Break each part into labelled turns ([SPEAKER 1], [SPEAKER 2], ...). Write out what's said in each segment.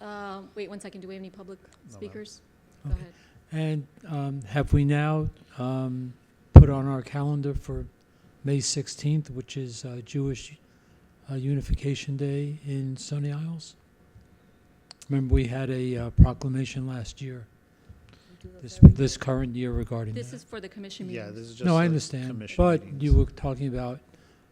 [SPEAKER 1] Uh, Wait one second, do we have any public speakers? Go
[SPEAKER 2] Okay.
[SPEAKER 1] ahead.
[SPEAKER 2] And um, have we now um, put on our calendar for May 16th, which is uh, Jewish uh, Unification Day in Stony Isles? Remember, we had a uh, proclamation last year, this, this current year regarding
[SPEAKER 1] This
[SPEAKER 2] that.
[SPEAKER 1] is for the commission
[SPEAKER 3] Yeah,
[SPEAKER 1] meetings.
[SPEAKER 3] this is just.
[SPEAKER 2] No, I
[SPEAKER 3] the
[SPEAKER 2] understand,
[SPEAKER 3] commission
[SPEAKER 2] but
[SPEAKER 3] meetings.
[SPEAKER 2] you were talking about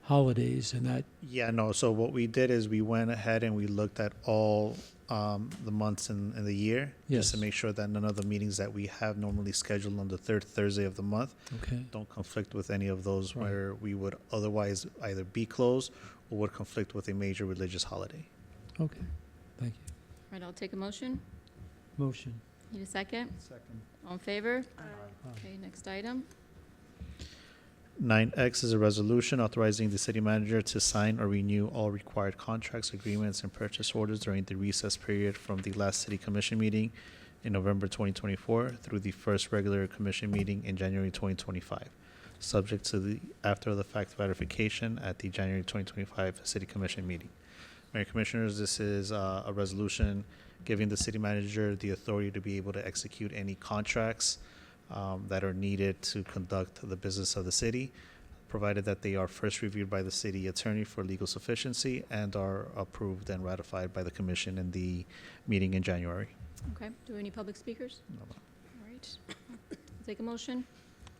[SPEAKER 2] holidays and that,
[SPEAKER 3] Yeah, no, so what we did is we went ahead and we looked at all um, the months in, in the year. Just to
[SPEAKER 2] Yes.
[SPEAKER 3] make sure that none of the meetings that we have normally scheduled on the third Thursday of the month
[SPEAKER 2] okay,
[SPEAKER 3] don't conflict with any of those
[SPEAKER 2] Right.
[SPEAKER 3] where we would otherwise either be closed or would conflict with a major religious holiday.
[SPEAKER 2] okay, thank you.
[SPEAKER 1] Right, I'll take a motion.
[SPEAKER 2] Motion.
[SPEAKER 1] Need a second?
[SPEAKER 3] Second.
[SPEAKER 1] All in favor?
[SPEAKER 2] Aye.
[SPEAKER 1] Okay, next item.
[SPEAKER 3] Nine X is a resolution authorizing the city manager to sign or renew all required contracts, agreements, and purchase orders during the recess period from the last city commission meeting in November twenty twenty-four through the first regular commission meeting in January twenty twenty-five, subject to the after-the-fact ratification at the January twenty twenty-five city commission meeting. Mayor Commissioners, this is uh, a resolution giving the city manager the authority to be able to execute any contracts um, that are needed to conduct the business of the city, provided that they are first reviewed by the city attorney for legal sufficiency and are approved and ratified by the commission in the meeting in January.
[SPEAKER 1] Okay, do we have any public speakers? All right. I'll Take a motion.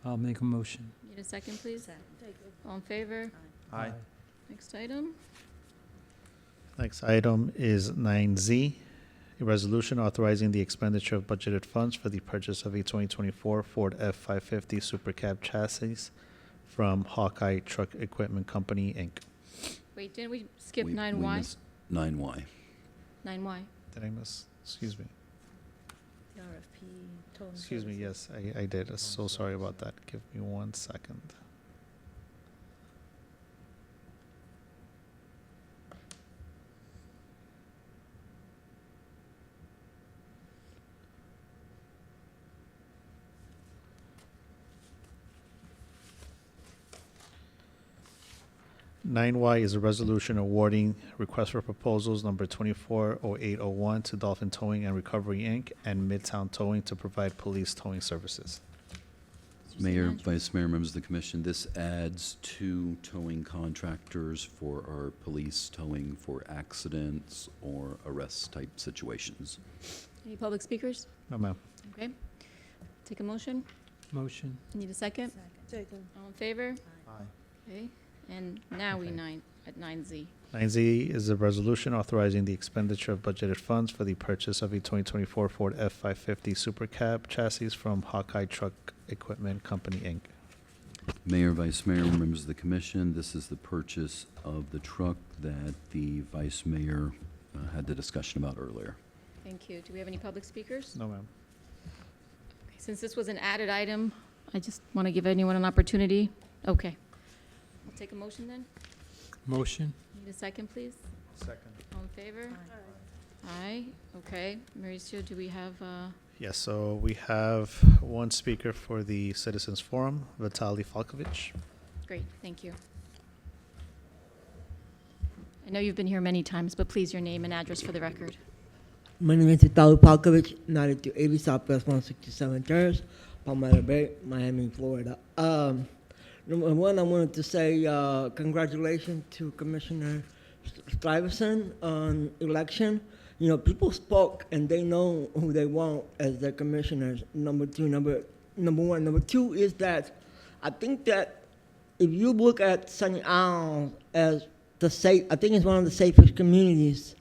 [SPEAKER 2] I'll make a motion.
[SPEAKER 1] Need a second, please? All in favor?
[SPEAKER 2] Aye.
[SPEAKER 1] Next item.
[SPEAKER 3] Next item is nine Z, a resolution authorizing the expenditure of budgeted funds for the purchase of a twenty twenty-four Ford F five fifty Super Cab chassis from Hawkeye Truck Equipment Company, Inc.
[SPEAKER 1] Wait, didn't we skip
[SPEAKER 4] We-
[SPEAKER 1] nine
[SPEAKER 4] we
[SPEAKER 1] Y?
[SPEAKER 4] missed Nine Y.
[SPEAKER 1] Nine Y.
[SPEAKER 3] Did I miss, excuse me,
[SPEAKER 5] The RFP, total.
[SPEAKER 3] excuse me, yes, I, I did, I'm so sorry about that, give me one second. Nine Y is a resolution awarding request for proposals number twenty-four oh eight oh one to Dolphin Towing and Recovery Inc. and Midtown Towing to provide police towing services.
[SPEAKER 1] Mr.
[SPEAKER 4] Mayor,
[SPEAKER 1] Sinaj.
[SPEAKER 4] Vice Mayor, members of the commission, this adds two towing contractors for our police towing for accidents or arrest-type situations.
[SPEAKER 1] Any public speakers?
[SPEAKER 3] No, Oh, ma'am.
[SPEAKER 1] Okay. Take a motion.
[SPEAKER 2] Motion.
[SPEAKER 1] Need a second?
[SPEAKER 5] Second.
[SPEAKER 1] All in favor? Okay, and now we
[SPEAKER 3] Okay.
[SPEAKER 1] nine, at nine Z.
[SPEAKER 3] Nine Z is a resolution authorizing the expenditure of budgeted funds for the purchase of a twenty twenty-four Ford F five fifty Super Cab chassis from Hawkeye Truck Equipment Company, Inc.
[SPEAKER 4] Mayor, Vice Mayor, members of the commission, this is the purchase of the truck that the Vice Mayor uh, had the discussion about earlier.
[SPEAKER 1] Thank you. Do we have any public speakers?
[SPEAKER 3] No, ma'am.
[SPEAKER 1] Okay, Since this was an added item, I just want to give anyone an opportunity. Okay. I'll take a motion then.
[SPEAKER 2] Motion.
[SPEAKER 1] Need a second, please?
[SPEAKER 3] Second.
[SPEAKER 1] All in favor? Aye, okay. Mauricio, do we have, uh,
[SPEAKER 3] Yes, so we have one speaker for the Citizens Forum, Vitaly Falkovich.
[SPEAKER 1] great, thank you. I know you've been here many times, but please, your name and address for the record.
[SPEAKER 6] My name is Italo Palkovich, 9280 Southwest 167 Terrace, Palmetto Bay, Miami, Florida. Um, number one, I wanted to say uh, congratulations to Commissioner Stuyvesant on election. You know, people spoke and they know who they want as their commissioners. Number two, number number one, number two is that I think that if you look at Sunny Isles as the safe, I think it's one of the safest communities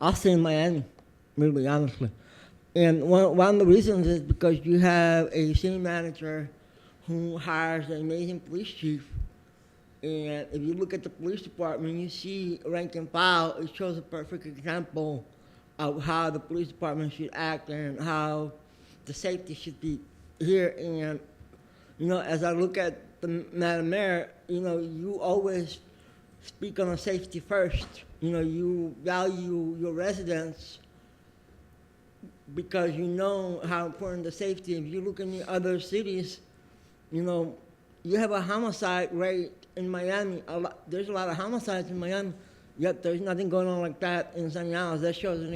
[SPEAKER 6] I've seen Miami, really honestly. And one, one of the reasons is because you have a city manager who hires an amazing police chief. And if you look at the police department, you see rank and file, it shows a perfect example of how the police department should act and how the safety should be here. And, you know, as I look at the Madam Mayor, you know, you always speak on safety first. You know, you value your residents because you know how important the safety. If you look in the other cities, you know, you have a homicide rate in Miami. A lot, there's a lot of homicides in Miami, yet there's nothing going on like that in San Diego. That shows an